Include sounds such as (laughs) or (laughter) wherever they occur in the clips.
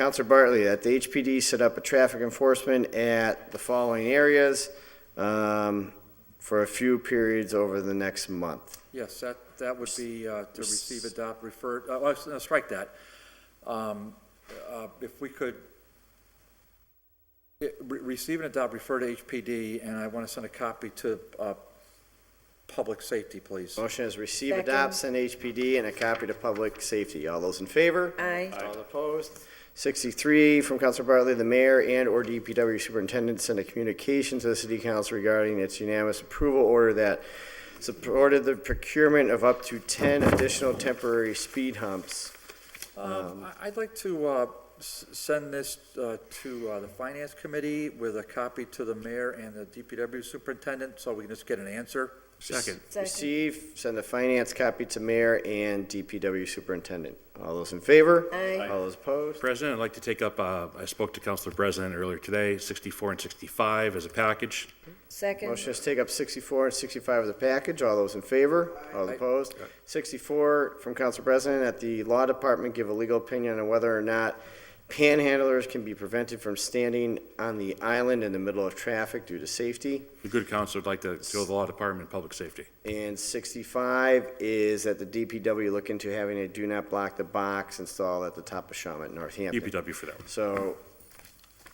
Counselor Bartley, that the HPD set up a traffic enforcement at the following areas um, for a few periods over the next month. Yes, that, that would be uh, to receive, adopt, refer, uh, uh, s- uh, strike that. Um, uh, If we could, it- re- receive and adopt, refer to HPD, and I want to send a copy to uh, Public Safety, please. Motion is receive, Second. adopt, send HPD, and a copy to public safety. All those in favor? Aye. All opposed? Sixty-three from Counselor Bartley, the mayor and/or DPW superintendent sent a communication to the city council regarding its unanimous approval order that supported the procurement of up to ten additional temporary speed humps. Um, I- I'd like to uh, s- send this uh, to uh, the Finance Committee with a copy to the mayor and the DPW superintendent, so we can just get an answer. Second. Second. Receive, send the finance copy to mayor and DPW superintendent. All those in favor? Aye. All those opposed? President, I'd like to take up, uh, I spoke to Councilor President earlier today, 64 and 65 as a package. Second. Motion is to take up sixty-four and sixty-five as a package. All those in favor? All Aye. opposed? Sixty-four from Council President, that the law department give a legal opinion on whether or not panhandlers can be prevented from standing on the island in the middle of traffic due to safety. The good council would like to go to the Law Department and Public Safety. And sixty-five is that the DPW look into having a do not block the box installed at the top of Shawmut, in Northampton. DPW E for that one. So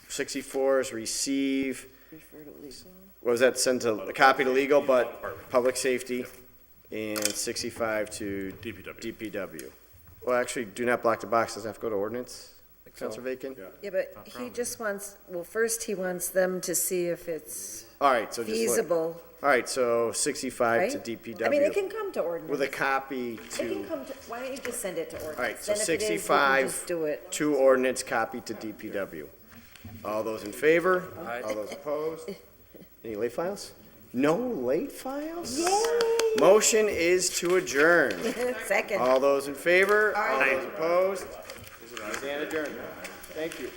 sixty-four is receive, Refer to legal. what was that, sent to, a copy to legal, but public safety, and sixty-five to DPW. DPW. Well, actually, do not block the box, doesn't have to go to ordinance, so. Counselor Bacon? Yeah, but he just wants, well, first he wants them to see if it's All right, so just, look. feasible, all right, so sixty-five right? to I mean, it DPW can come to with a ordinance. copy It can to, come to, why don't you just send it to ordinance? right, so Then if it is, we can 65 Just do it. (laughs) to ordinance, copy to DPW. All those in favor? Aye. All those opposed? Any late files? No late files? Yay! Motion is to adjourn. Second. All those in favor? All those opposed? Stand adjourned. Thank you.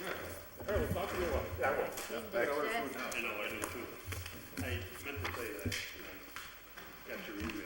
I meant to say that, you know, got your email.